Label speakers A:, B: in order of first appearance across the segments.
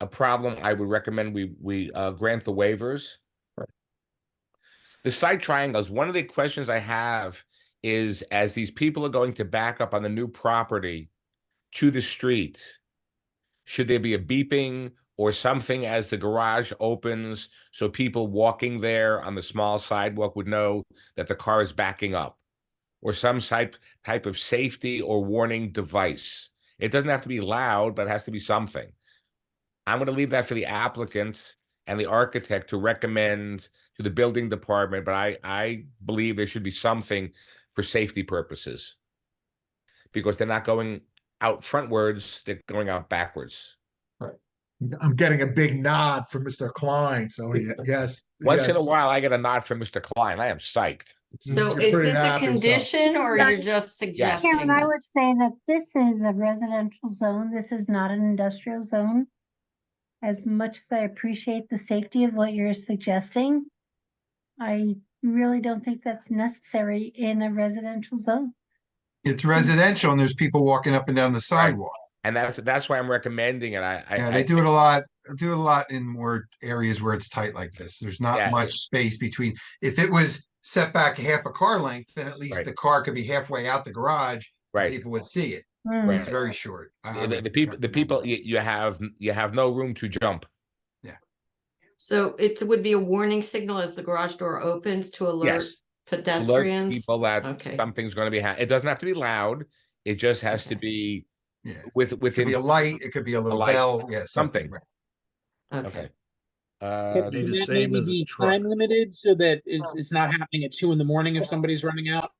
A: a problem, I would recommend we, we, uh, grant the waivers. The side triangles, one of the questions I have is as these people are going to back up on the new property to the street, should there be a beeping or something as the garage opens so people walking there on the small sidewalk would know that the car is backing up? Or some type, type of safety or warning device? It doesn't have to be loud, but it has to be something. I'm gonna leave that for the applicant and the architect to recommend to the building department, but I, I believe there should be something for safety purposes. Because they're not going out frontwards, they're going out backwards.
B: I'm getting a big nod from Mr. Klein, so he- yes.
A: Once in a
B: yes,
A: while, I get a nod from Mr. Klein. I am psyched.
B: he's-
C: So
B: he's
C: is
B: pretty
C: this a
B: happy, so-
C: condition or
D: Yeah.
C: you're just suggesting
D: Karen, I would
C: this?
D: say that this is a residential zone. This is not an industrial zone. As much as I appreciate the safety of what you're suggesting, I really don't think that's necessary in a residential zone.
E: It's residential and there's people walking up and down the sidewalk.
A: And that's, that's why I'm recommending it. I,
E: Yeah,
A: I,
E: they
A: I,
E: do it a lot, do it a lot in more areas where it's tight like this. There's
A: Yeah.
E: not much space between. If it was set back half a car length, then at least
A: Right.
E: the car could be halfway out the garage.
A: right.
E: People would see it.
D: Hmm.
A: Right.
E: It's very short. Um, I- I
A: The,
E: would
A: the people, the
E: recommend
A: people,
E: that.
A: you, you have, you have no room to jump.
C: So it would be a warning signal as the garage door opens to alert
A: Yes. Alert
C: pedestrians?
A: people that
C: Okay.
A: something's gonna be, ha- it doesn't have to be loud. It just has to
C: Okay.
A: be
E: Yeah, it
A: with,
E: could
A: within.
E: be a light, it could be a little
A: light,
E: bell, yeah,
A: something.
E: something. right.
C: Okay,
A: Okay. Uh,
F: Could
G: be the
F: that
G: same
F: maybe
G: as a
F: be
G: truck.
F: Time limited so that it's, it's not happening at two in the morning if somebody's running out.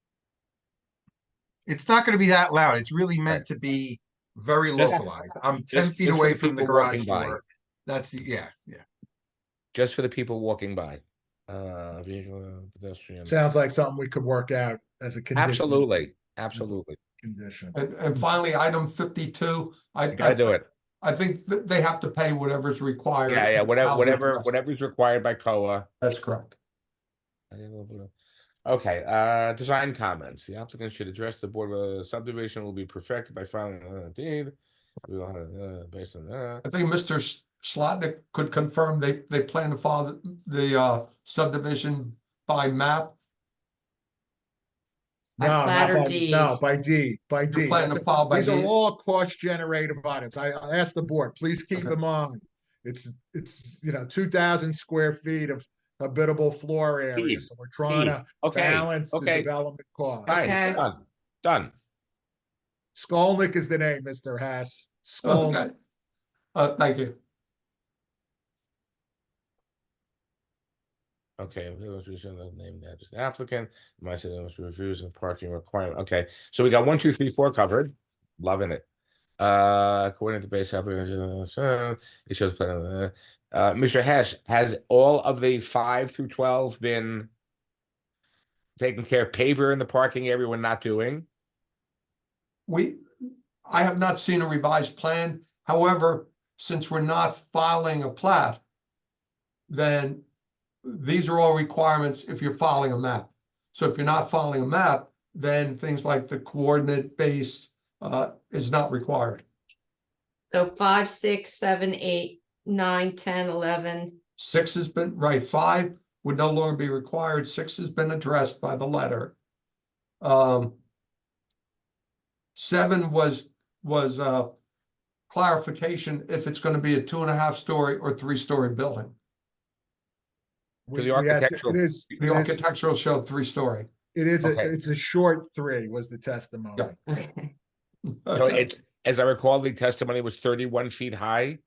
E: It's not gonna be that loud. It's really meant to be very
A: Just-
E: localized. I'm
A: just-
E: ten feet
A: just for
E: away
A: the
E: from the
A: people walking
E: garage
A: by.
E: door. That's, the yeah, yeah.
A: just for the people walking by. Uh, vehicle, uh, pedestrian.
B: Sounds like something we could work out as a condition.
A: Absolutely, absolutely.
B: Condition.
H: And, and finally, item fifty-two, I,
A: You gotta
H: I,
A: do it.
H: I think that they have to pay whatever's required.
A: Yeah, yeah, whatever,
H: Housing
A: whatever,
H: trust.
A: whatever's required by COA.
H: That's correct.
A: I think we'll put a- Okay, uh, design comments. The applicant should address the board, whether the subdivision will be perfected by filing a deed. We will have, uh, based on that.
H: I think Mr. S- Slotnick could confirm they, they plan to follow the- the, uh, subdivision by map.
C: By
B: No, not
C: plat or
B: by-
C: deed?
B: No, by deed, by
H: You're
B: deed.
H: planning to follow by
B: These are
H: deed?
B: all cost generative items. I, I asked the board, please keep
H: Okay.
B: in mind. It's, it's, you know, two thousand square feet of habitable floor area,
A: Deed,
B: so we're trying
A: deed.
B: to
A: Okay,
B: balance the
A: okay.
B: development cost.
A: fine,
C: Okay.
A: done, done.
B: Skolnick is the name, Mr. Haas.
H: Okay.
B: Skolnick.
H: Uh, thank you.
A: Okay, we have to show the name, that is the applicant, might say those reviews and parking requirement. Okay, so we got one, two, three, four covered. Loving it. Uh, according to base application, uh, it shows plan. Uh, uh, Mr. Hess, has all of the five through twelve been taken care of? Paver in the parking area, we're not doing.
H: We, I have not seen a revised plan. However, since we're not filing a plat, then these are all requirements if you're filing a map. So if you're not filing a map, then things like the coordinate base uh, is not required.
C: so five, six, seven, eight, nine, ten, eleven.
H: Six has been, right, five would no longer be required. Six has been addressed by the letter. Um, Seven was, was uh, clarification if it's going to be a two and a half story or three story building.
A: the
B: We- we had to-
A: architectural-
B: It is,
H: The
B: it is,
H: architectural showed three story.
B: it is, a-
A: Okay.
B: it's a short three was the testimony.
H: Yeah.
C: Okay,
A: So it, as I recall, the testimony was thirty-one feet high.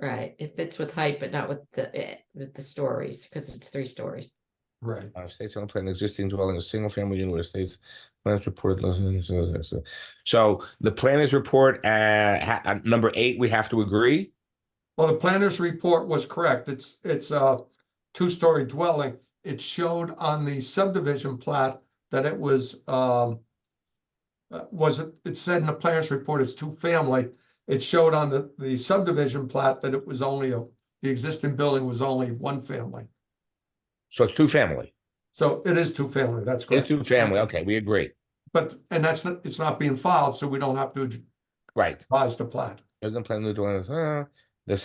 C: right. It fits with height, but not with the, eh, with the stories, because it's three stories.
H: Right.
A: Uh, states on plan existing dwelling, a single family unit with states. Plans reported. less than- so- so- so- So the planners report, uh, ha- uh, number eight, we have to agree.
H: Well, the planner's report was correct. It's, it's a two-story dwelling. It showed on the subdivision plat that it was, um, uh, was, it it said in the planner's report it's two-family. It showed on the, the subdivision plat that it was only a, the existing building was only one family.
A: So it's two family,
H: So it is two-family, that's
A: it's
H: correct.
A: two family. Okay, we agree.
H: But, and that's, not it's not being filed, so we don't have to
A: Right.
H: advise the plat.
A: Doesn't plan new dwelling, uh,